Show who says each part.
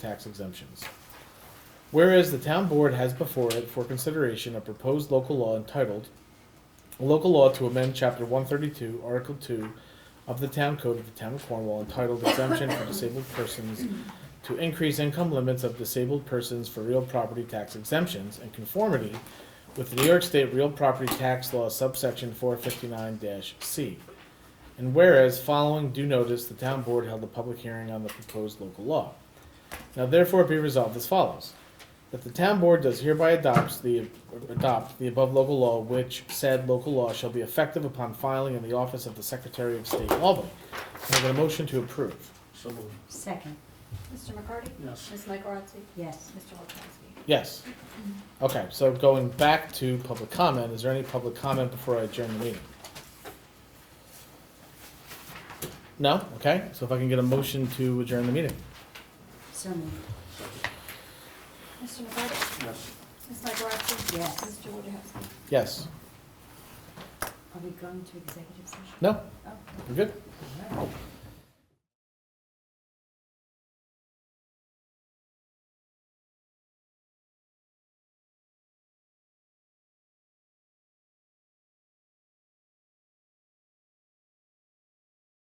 Speaker 1: tax exemptions. Whereas the town board has before it for consideration a proposed local law entitled "A Local Law to Amend Chapter one thirty-two, Article two of the Town Code of the Town of Cornwall entitled Exemption for Disabled Persons to increase income limits of disabled persons for real property tax exemptions in conformity with the New York State Real Property Tax Law subsection four fifty-nine C. And whereas following due notice, the town board held a public hearing on the proposed local law. Now therefore be resolved as follows. That the town board does hereby adopts the, adopt the above local law, which said local law shall be effective upon filing in the office of the Secretary of State of Albany. Can I get a motion to approve?
Speaker 2: So moved.
Speaker 3: Second,
Speaker 4: Mr. McCarty?
Speaker 2: Yes.
Speaker 4: Ms. Mike Rotzi?
Speaker 3: yes.
Speaker 4: Mr. Wojtkowski?
Speaker 1: Yes. Okay, so going back to public comment, is there any public comment before I adjourn the meeting? No? Okay, so if I can get a motion to adjourn the meeting?
Speaker 3: So moved,
Speaker 4: Mr. McCarty?
Speaker 2: Yes.
Speaker 4: Ms. Mike Rotzi?
Speaker 3: Yes.
Speaker 4: Mr. Wojtkowski?
Speaker 1: Yes?
Speaker 3: are we going to executive session?
Speaker 1: No?
Speaker 3: Oh,
Speaker 1: We're good?
Speaker 3: all right.